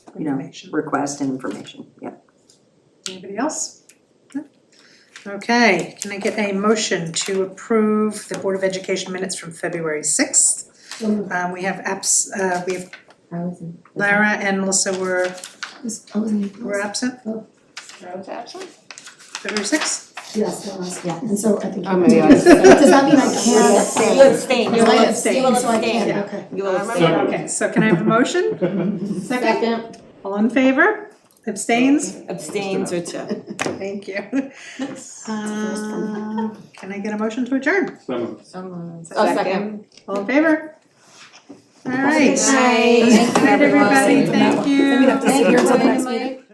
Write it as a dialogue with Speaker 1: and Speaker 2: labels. Speaker 1: you know,
Speaker 2: information.
Speaker 1: request and information, yeah.
Speaker 2: Anybody else? No? Okay, can I get a motion to approve the Board of Education minutes from February sixth? Um, we have apps, uh, we have
Speaker 3: I wasn't.
Speaker 2: Lara and Melissa were,
Speaker 3: Was- I wasn't.
Speaker 2: were absent,
Speaker 4: Rose absent?
Speaker 2: February sixth?
Speaker 3: Yes, I was, yeah, and so I think.
Speaker 4: Oh, maybe I was-
Speaker 3: Does that mean I can't abstain?
Speaker 4: You abstain, you
Speaker 3: I abstained,
Speaker 4: will abstain, you will
Speaker 3: so I
Speaker 4: abstain.
Speaker 3: can't, okay.
Speaker 4: You will abstain.
Speaker 5: Second.
Speaker 2: Okay, so can I have a motion? Second, all in favor? Abstains?
Speaker 4: Abstains or two.
Speaker 2: Thank you. Uh, can I get a motion to adjourn?
Speaker 5: Some.
Speaker 3: Oh, second.
Speaker 2: All in favor? All right.
Speaker 4: Night.
Speaker 2: Good night, everybody, thank you.
Speaker 3: Thank you.
Speaker 4: Thank you.